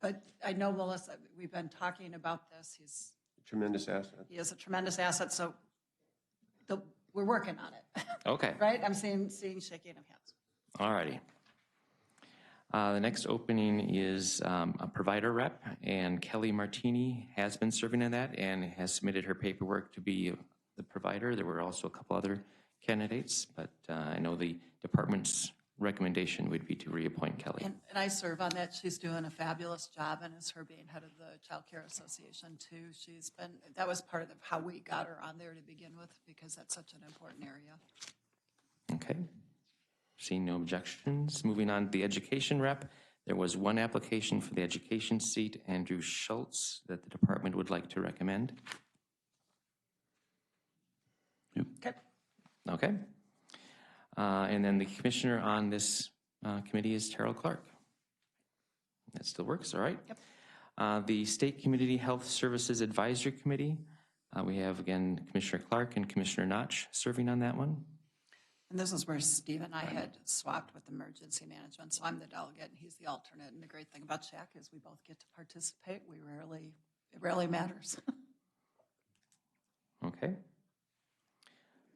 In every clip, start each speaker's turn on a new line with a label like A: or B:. A: But I know Melissa, we've been talking about this. He's,
B: Tremendous asset.
A: he is a tremendous asset, so the, we're working on it,
C: Okay,
A: right? I'm seeing, seeing shaking of hands.
C: all righty. Uh, The next opening is um, a provider rep, and Kelly Martini has been serving in that and has submitted her paperwork to be the provider. There were also a couple other candidates, but uh, I know the department's recommendation would be to reappoint Kelly.
A: And, and I serve on that. She's doing a fabulous job, and it's her being head of the Child Care Association too. She's been, that was part of how we got her on there to begin with, because that's such an important area.
C: Okay. Seeing no objections, moving on to the education rep. There was one application for the education seat, Andrew Schultz, that the department would like to recommend.
A: Okay.
C: Okay. Uh, And then the commissioner on this uh, committee is Terrell Clark. That still works, all right?
A: Yep.
C: Uh, The State Community Health Services Advisory Committee, uh, we have again Commissioner Clark and Commissioner Notch serving on that one.
A: And this is where Steve and I had swapped with emergency management, so I'm the delegate and he's the alternate. And the great thing about Shack is we both get to participate. We rarely, it rarely matters.
C: Okay.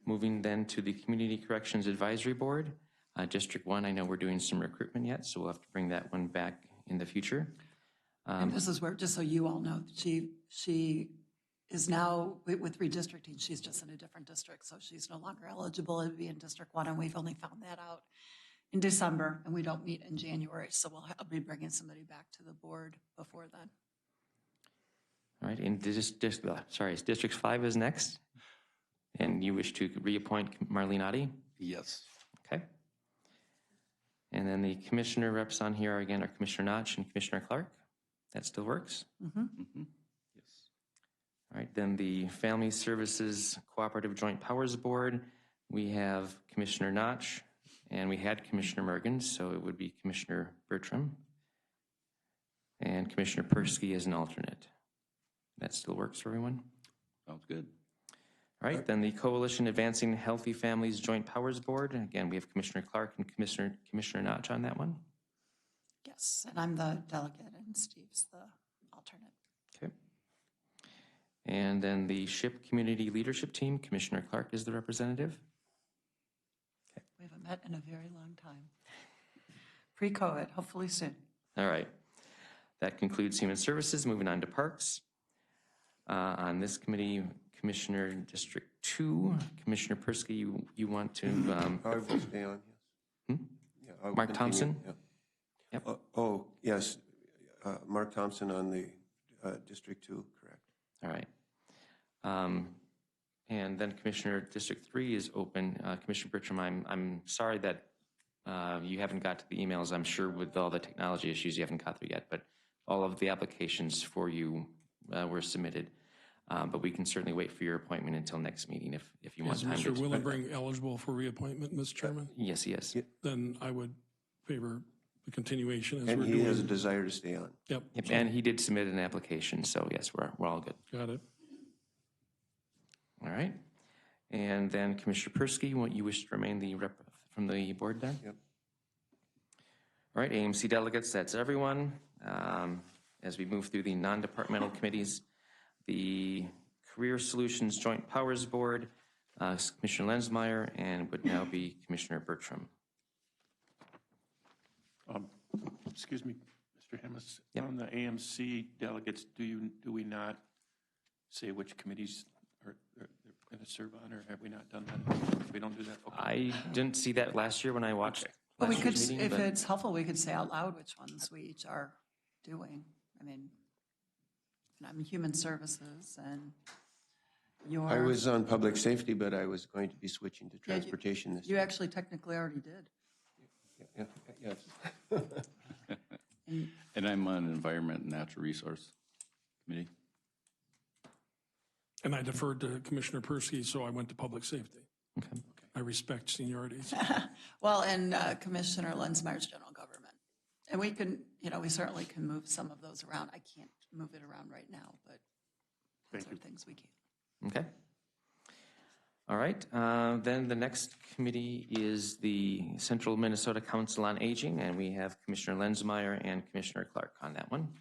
C: Moving then to the Community Corrections Advisory Board. Uh, District 1, I know we're doing some recruitment yet, so we'll have to bring that one back in the future.
A: And this is where, just so you all know, she, she is now wi- with redistricting, she's just in a different district, so she's no longer eligible to be in District One, and we've only found that out in December, and we don't meet in January, so we'll, I'll be bringing somebody back to the board before then.
C: All right, and dis, dis, uh, sorry, District 5 is next. And you wish to reappoint Marlene Otti?
D: Yes.
C: Okay. And then the commissioner reps on here are again are Commissioner Notch and Commissioner Clark. That still works?
D: Mm-hmm. Yes.
C: All right, then the Family Services Cooperative Joint Powers Board, we have Commissioner Notch, and we had Commissioner Mergen, so it would be Commissioner Bertram. And Commissioner Persky as an alternate. That still works for everyone?
D: Sounds good.
C: All right, then the Coalition Advancing Healthy Families Joint Powers Board, and again, we have Commissioner Clark and Commissioner, Commissioner Notch on that one.
A: Yes, and I'm the delegate, and Steve's the alternate.
C: Okay. And then the SHIP Community Leadership Team, Commissioner Clark is the representative.
A: We haven't met in a very long time. Pre-COVID, hopefully soon.
C: All right. That concludes Human Services. Moving on to Parks. Uh, On this committee, Commissioner District Two, Commissioner Persky, you, you want to, um,
B: I will stay on, yes. Yeah, I will
C: Hmm? Mark
B: continue,
C: Thompson?
B: yeah.
C: Yep.
B: Oh- Oh, yes, uh, Mark Thompson on the uh, District Two, correct.
C: all right. Um, And then Commissioner District Three is open. Uh, Commissioner Bertram, I'm, I'm sorry that uh, you haven't got to the emails. I'm sure with all the technology issues, you haven't got through yet, but all of the applications for you uh, were submitted. Uh, But we can certainly wait for your appointment until next meeting if, if you want
E: Is
C: time to.
E: Mr. Willenbring eligible for reappointment, Mr. Chairman?
C: Yes, he is.
E: Then I would favor the continuation as
B: And
E: we're
B: he has a
E: doing.
B: desire to stay on.
E: Yep,
C: Yep, And he did submit an application, so yes, we're, we're all good.
E: got it.
C: All right. And then Commissioner Persky, what you wish to remain the rep from the board there?
B: Yep.
C: All right, AMC delegates, that's everyone. Um, As we move through the non-departmental committees, the Career Solutions Joint Powers Board, uh, Commissioner Lensmeyer, and would now be Commissioner Bertram.
F: Excuse me, Mr. Hemus.
C: Yep.
F: On the AMC delegates, do you, do we not say which committees are, are going to serve on, or have we not done that? We don't do that? Okay.
C: I didn't see that last year when I watched
A: But we
C: last
A: could,
C: year's meeting,
A: if
C: but
A: it's helpful, we could say out loud which ones we each are doing. I mean, and I'm Human Services and your.
B: I was on Public Safety, but I was going to be switching to Transportation this
A: You
B: year.
A: actually technically already did.
B: Yeah, Yes.
D: And I'm on Environment and Natural Resource Committee.
E: And I deferred to Commissioner Persky, so I went to public safety.
C: Okay.
E: I respect seniority.
A: Well, and uh, Commissioner Lensmeyer's General Government. And we can, you know, we certainly can move some of those around. I can't move it around right now, but those are things we can.
C: Okay. All right, uh, then the next committee is the Central Minnesota Council on Aging, and we have Commissioner Lenzmeyer and Commissioner Clark on that one.